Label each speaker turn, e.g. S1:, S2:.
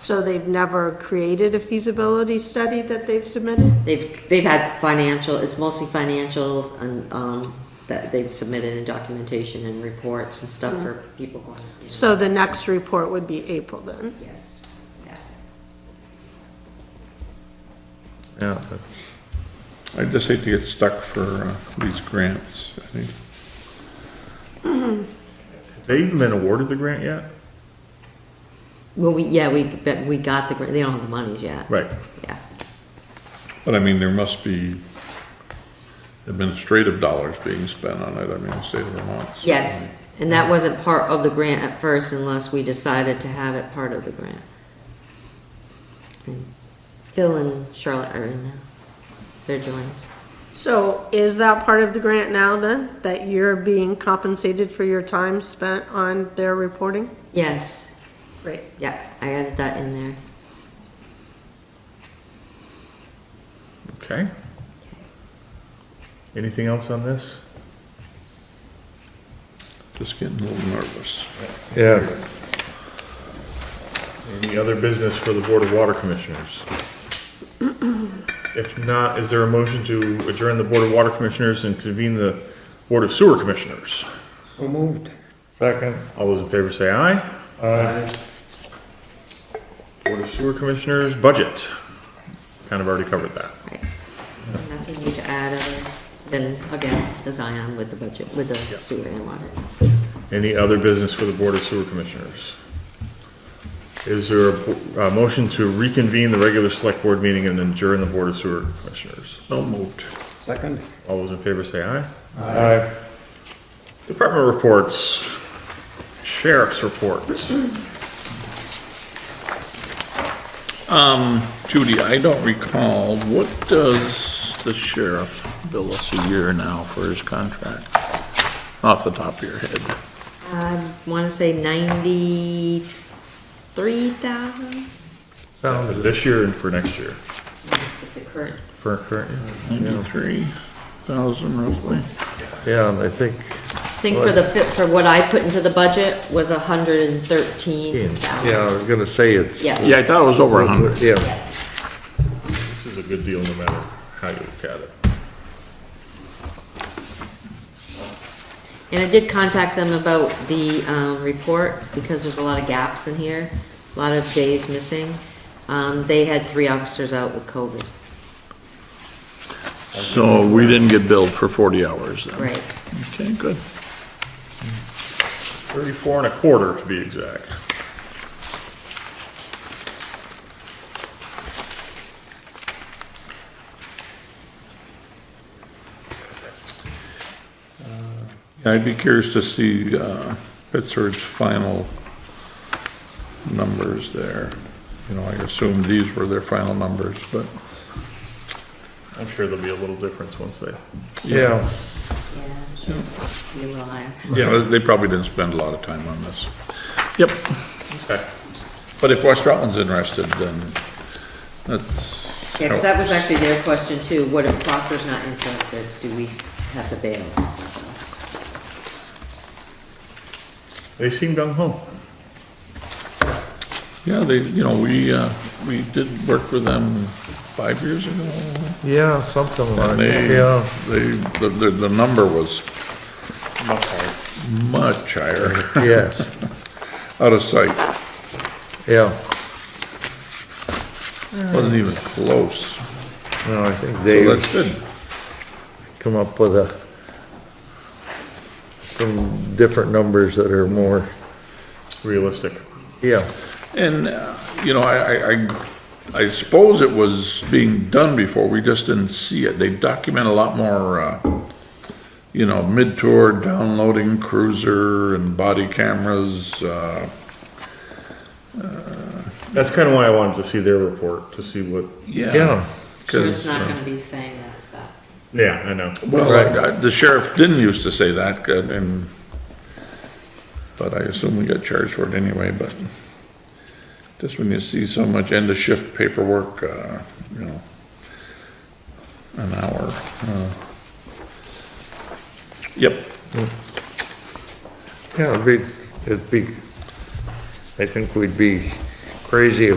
S1: So they've never created a feasibility study that they've submitted?
S2: They've, they've had financial, it's mostly financials and, um, that they've submitted in documentation and reports and stuff for people going. you know.
S1: So the next report would be April then?
S2: Yes. Yeah.
S3: Yeah,
S4: I just hate to get stuck for uh, these grants. I think
S3: have they even been awarded the grant yet?
S2: Well, we, yeah, we, but we got the, grant. they don't have the monies yet.
S3: Right.
S2: Yeah.
S4: But I mean, there must be administrative dollars being spent on it, I mean, the state of Vermont. so-
S2: Yes, and that wasn't part of the grant at first unless we decided to have it part of the grant. And Phil and Charlotte are in there. They're joined.
S1: So is that part of the grant now then, that you're being compensated for your time spent on their reporting?
S2: Yes,
S1: Great.
S2: yeah, I added that in there.
S3: Okay. Anything else on this?
S4: Just getting a little nervous.
S3: Yes. Any other business for the Board of Water Commissioners? If not, is there a motion to adjourn the Board of Water Commissioners and convene the Board of Sewer Commissioners?
S5: So moved.
S6: Second.
S3: All those in favor say aye.
S6: Aye.
S3: Board of Sewer Commissioners, budget. Kind of already covered that.
S2: Right. Nothing new to add other than, again, the Zion with the budget, with the sewer and water.
S3: Any other business for the Board of Sewer Commissioners? Is there a bo- a, motion to reconvene the regular Select Board meeting and adjourn the Board of Sewer Commissioners?
S4: So moved.
S5: Second.
S3: All those in favor say aye.
S6: Aye.
S3: Department reports, sheriff's reports.
S4: Judy, I don't recall, what does the sheriff bill us a year now for his contract? Off the top of your head.
S2: I Um, wanna say ninety-three thousand?
S3: For this year and for next year,
S2: The current,
S3: for current year.
S4: Ninety-three thousand roughly.
S6: Yeah, I think,
S2: I think for the fit, for what I put into the budget was a hundred and thirteen thousand.
S6: yeah, I was gonna say it's.
S2: Yeah,
S4: Yeah, I thought it was over a hundred.
S6: Yeah,
S3: This is a good deal no matter how you look at it.
S2: and I did contact them about the, um, report, because there's a lot of gaps in here, a lot of days missing. Um, they had three officers out with COVID,
S4: So we didn't get billed for forty hours then?
S2: right?
S4: Okay, good.
S3: Thirty-four and a quarter to be exact.
S4: I'd be curious to see uh, Pittsburgh's final numbers there. You know, I assume these were their final numbers, but
S3: I'm sure there'll be a little difference once they,
S6: yeah.
S2: Yeah, sure. Be a little higher.
S4: yeah, they probably didn't spend a lot of time on this. Yep,
S3: okay.
S4: but if West Rutland's interested, then that's.
S2: Yeah, because that was actually their question too, what if Proctor's not interested, do we have the bail?
S3: They seem gung ho.
S4: Yeah, they, you know, we, uh, we did work with them five years ago,
S6: Yeah, something like,
S4: And they,
S6: yeah.
S4: they, the, the, the number was much higher,
S6: Yes,
S4: out of sight,
S6: yeah.
S4: wasn't even close.
S6: No, I think
S4: So
S6: they
S4: that's good.
S6: come up with a, some different numbers that are more,
S3: Realistic.
S6: yeah.
S4: And, uh, you know, I, I- I, I suppose it was being done before, we just didn't see it. They document a lot more, uh, you know, mid-tour downloading cruiser and body cameras, uh,
S3: That's kind of why I wanted to see their report, to see what,
S4: yeah.
S6: Yeah.
S2: Sure, it's
S4: 'Cause,
S2: not gonna be saying that stuff.
S3: yeah, I know.
S4: Well, I- I- the sheriff didn't used to say that, uh, and, but I assume we got charged for it anyway, but just when you see so much end of shift paperwork, uh, you know, an hour. uh, Yep,
S6: Yeah, it'd be, it'd be, I think we'd be crazy if